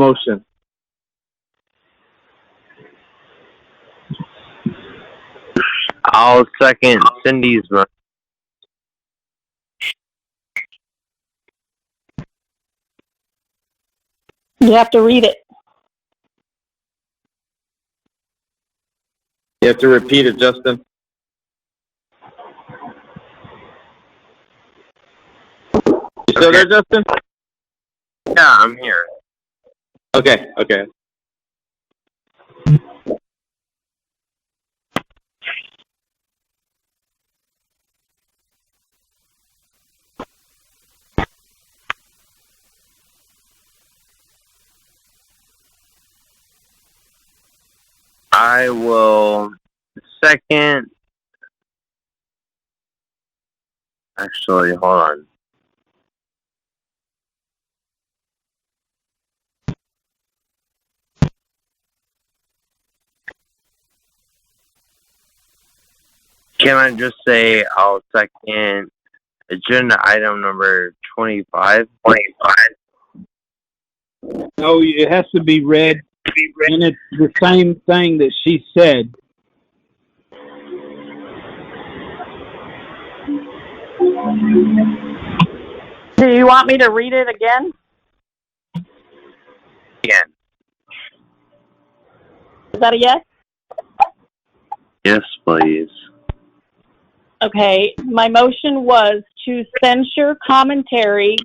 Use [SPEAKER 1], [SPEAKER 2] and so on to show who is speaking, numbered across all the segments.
[SPEAKER 1] motion.
[SPEAKER 2] I'll second Cindy's mo-
[SPEAKER 3] You have to read it.
[SPEAKER 1] You have to repeat it, Justin. You still there, Justin?
[SPEAKER 2] Yeah, I'm here.
[SPEAKER 1] Okay, okay.
[SPEAKER 2] I will second. Actually, hold on. Can I just say I'll second agenda item number 25? 25.
[SPEAKER 4] No, it has to be read, and it's the same thing that she said.
[SPEAKER 3] Do you want me to read it again?
[SPEAKER 2] Again.
[SPEAKER 3] Is that a yes?
[SPEAKER 2] Yes, please.
[SPEAKER 3] Okay, my motion was to censure commentary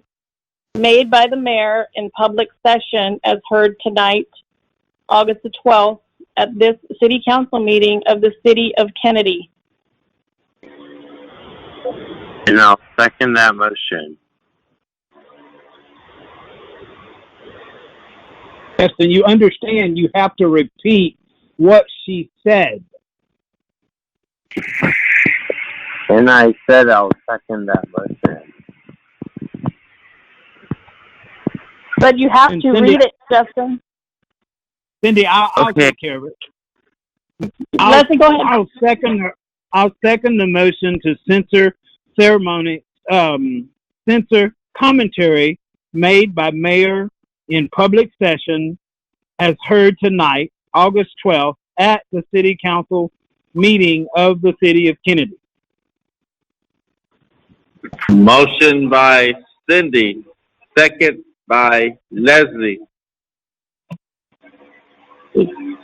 [SPEAKER 3] made by the mayor in public session as heard tonight, August the 12th, at this city council meeting of the city of Kennedy.
[SPEAKER 2] And I'll second that motion.
[SPEAKER 4] Justin, you understand you have to repeat what she said.
[SPEAKER 2] And I said I'll second that motion.
[SPEAKER 3] But you have
[SPEAKER 4] And
[SPEAKER 3] to
[SPEAKER 4] Cindy-
[SPEAKER 3] read it, Justin.
[SPEAKER 4] Cindy, I'll, I'll
[SPEAKER 2] Okay.
[SPEAKER 4] take care of it.
[SPEAKER 3] Leslie, go ahead.
[SPEAKER 4] I'll second. The, I'll second the motion to censor ceremony, um, censor commentary made by mayor in public session, as heard tonight, August twelfth, at the city council meeting of the city of Kennedy.
[SPEAKER 1] Motion by Cindy, second by Leslie. Any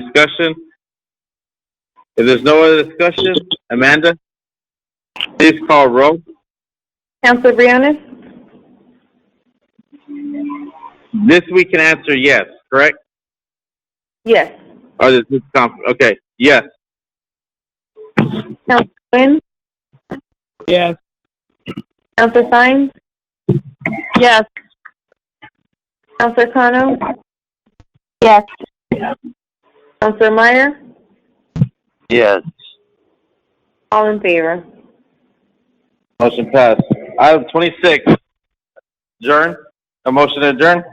[SPEAKER 1] discussion? If there's no other discussion, Amanda, please call roll.
[SPEAKER 5] Counselor Briones?
[SPEAKER 1] This we can answer yes, correct?
[SPEAKER 5] Yes.
[SPEAKER 1] Or this is conf- okay, yes.
[SPEAKER 5] Quinn?
[SPEAKER 4] Yes.
[SPEAKER 5] Counselor Sines?
[SPEAKER 3] Yes.
[SPEAKER 5] Counselor Kano?
[SPEAKER 3] Yes.
[SPEAKER 5] Counselor Meyer?
[SPEAKER 2] Yes.
[SPEAKER 5] All in favor.
[SPEAKER 1] Motion passed. Item twenty-six, adjourn, a motion to adjourn?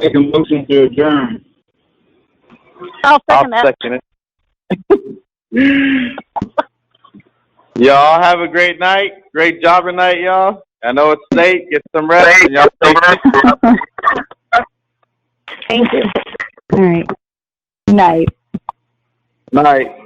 [SPEAKER 4] Make a motion to adjourn.
[SPEAKER 3] I'll
[SPEAKER 1] I'll
[SPEAKER 3] second that.
[SPEAKER 1] second it. y'all have a great night. Great job tonight, y'all. I know it's late. Get some rest. and y'all stay safe.
[SPEAKER 5] Thank you.
[SPEAKER 6] All right. Night.
[SPEAKER 1] Night.